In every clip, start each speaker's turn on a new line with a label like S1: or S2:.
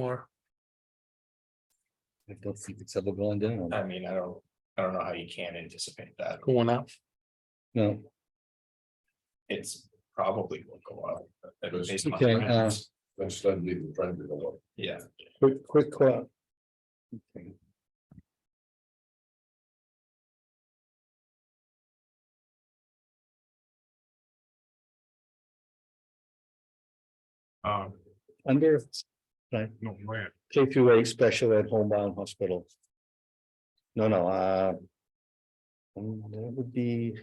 S1: more.
S2: I don't think it's ever going down.
S3: I mean, I don't, I don't know how you can anticipate that.
S1: Going up.
S2: No,
S3: It's probably will go up. uh, based on
S2: Okay, uh,
S3: trends.
S4: That's not leaving the trend to go up.
S3: Yeah,
S1: Quick, quick clap.
S5: Um,
S2: under
S5: no, go ahead.
S2: K through eight special ed homebound hospital. No, no, uh. um, that would be.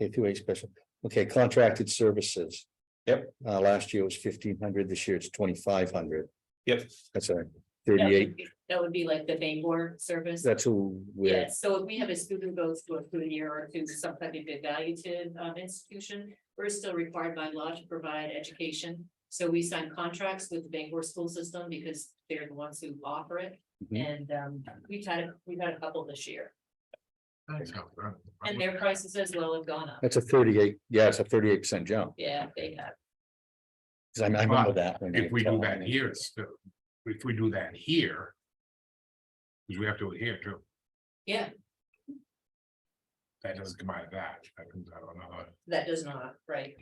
S2: K through eight special, okay, contracted services.
S3: Yep.
S2: Uh, last year was fifteen hundred, this year it's twenty-five hundred,
S3: yep,
S2: that's a
S6: That would
S2: thirty-eight,
S6: be- That would be like the Bangor service.
S2: that's who we're,
S6: Yes, so if we have a student goes to a food year or to some kind of evaluative um institution, we're still required by law to provide education. So we sign contracts with the Bangor school system because they're the ones who offer it.
S2: Mhm.
S6: And um, we've had, a- we've had a couple this year
S5: Thanks, Al. Uh, I
S6: and
S5: was-
S6: their prices as well have gone up.
S2: that's a thirty-eight, yeah, it's a thirty-eight percent jump,
S6: Yeah, they have.
S2: 'Cause I I remember that. when
S5: If
S2: they
S5: we do
S2: told
S5: that
S2: me.
S5: here, it's still, if we do that here. Cause we have to do it here too,
S6: Yeah,
S5: that doesn't come out of that, that comes out of another,
S6: that does not, right?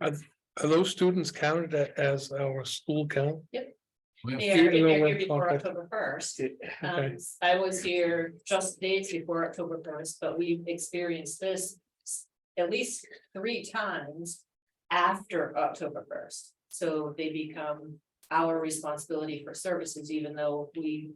S1: Are those students counted a- as our school count?
S6: They are,
S1: Even though
S6: they're
S1: we're
S6: here before
S1: contract-
S6: October first.
S1: Okay.
S6: Um, I was here just days before October first, but we've experienced this s- at least three times after October first. So they become our responsibility for services, even though we,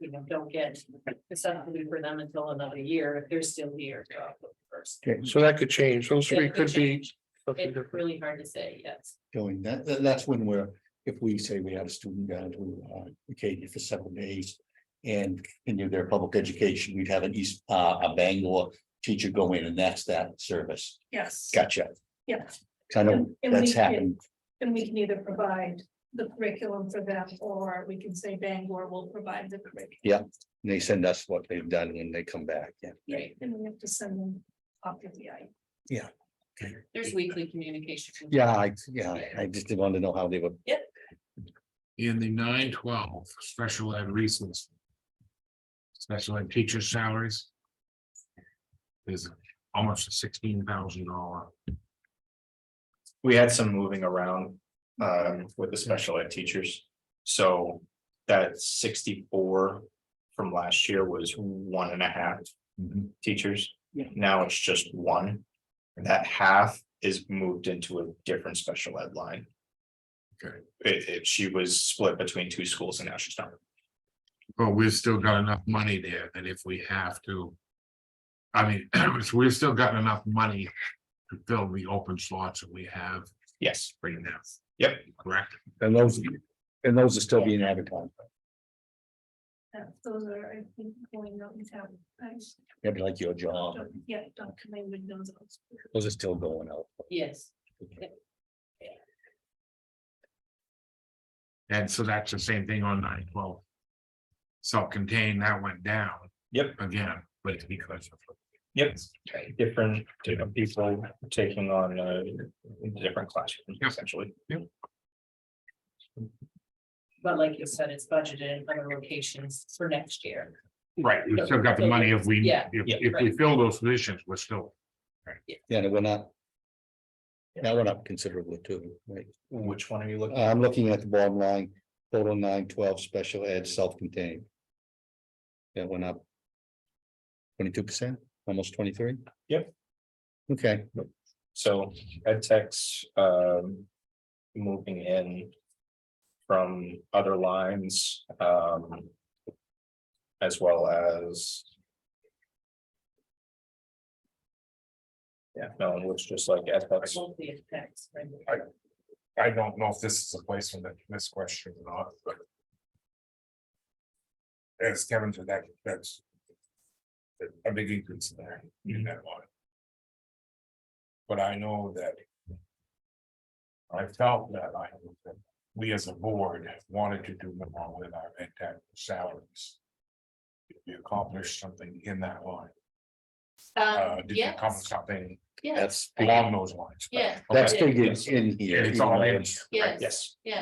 S6: you know, don't get the subsidy for them until another year, if they're still here to October first.
S1: Okay, so that could change. Those three
S6: That could
S1: could be.
S6: change.
S1: something
S6: It's
S1: different.
S6: really hard to say, yes.
S2: Going, that, that- that's when we're, if we say we have a student down to uh, Acadia for seven days. And continue their public education, we'd have an East, uh, a Bangor teacher go in and that's that service,
S7: Yes.
S2: gotcha,
S7: Yeah,
S2: kind of,
S7: And we
S2: that's
S7: did.
S2: happened,
S7: and we can either provide the curriculum for them, or we can say Bangor will provide the curriculum.
S2: and they send us what they've done when they come back, yeah.
S6: Right.
S7: And we have to send them off to the I.
S6: There's weekly communication.
S2: Yeah, I, yeah, I- I just wanted to know how they were,
S5: in the nine twelve, special ed reasons. Special ed teacher salaries. Is almost a sixteen thousand dollar,
S3: we had some moving around um with the special ed teachers. So that sixty-four from last year was one and a half
S5: Mm-hmm.
S3: teachers.
S2: Yeah.
S3: Now it's just one. That half is moved into a different special ed line.
S5: Okay.
S3: It it- she was split between two schools and now she's not.
S5: but we've still got enough money there that if we have to. I mean, we've still got enough money to fill the open slots that we have
S3: Yes,
S5: right now.
S3: Yep.
S5: Correct,
S2: and those, and those are still being advertised.
S7: Uh, Those are, I think, going out in town. I-
S2: Maybe like your job,
S7: Yeah, Dr. Langwood knows. those.
S2: those are still going out.
S6: Yes,
S5: and so that's the same thing on nine twelve. Self-contained, that went down.
S3: Yep.
S5: Again, but it's because of.
S3: yep, different, different people taking on uh different classrooms
S5: Yep.
S3: essentially.
S6: but like you said, it's budgeted in other locations for next year.
S5: Right, we've still got the money if we, if,
S6: Yeah,
S3: yeah,
S5: if we fill those positions, we're still,
S2: Yeah, and we're not. That went up considerably too, right?
S3: Which one are you looking?
S2: Uh, I'm looking at the bottom line, total nine twelve, special ed, self-contained. That went up. Twenty-two percent, almost twenty-three?
S3: Yep.
S2: Okay,
S3: So ed techs um moving in from other lines um. As well as. Yeah, no, it looks just like ed techs.
S6: Mostly it's tax, right?
S5: I don't know if this is the place for that, this question or not, but. As Kevin said, that, that's. A big increase there in that line. But I know that. I felt that I, that we as a board wanted to do more with our ed tech salaries. We accomplished something in that line.
S6: Um,
S5: uh, did you
S6: yes,
S5: come something
S6: yes,
S2: That's,
S5: along those lines?
S6: yeah,
S2: that's figured in here.
S5: It's all
S2: even though
S5: in.
S2: it's-
S6: yes.
S3: yes.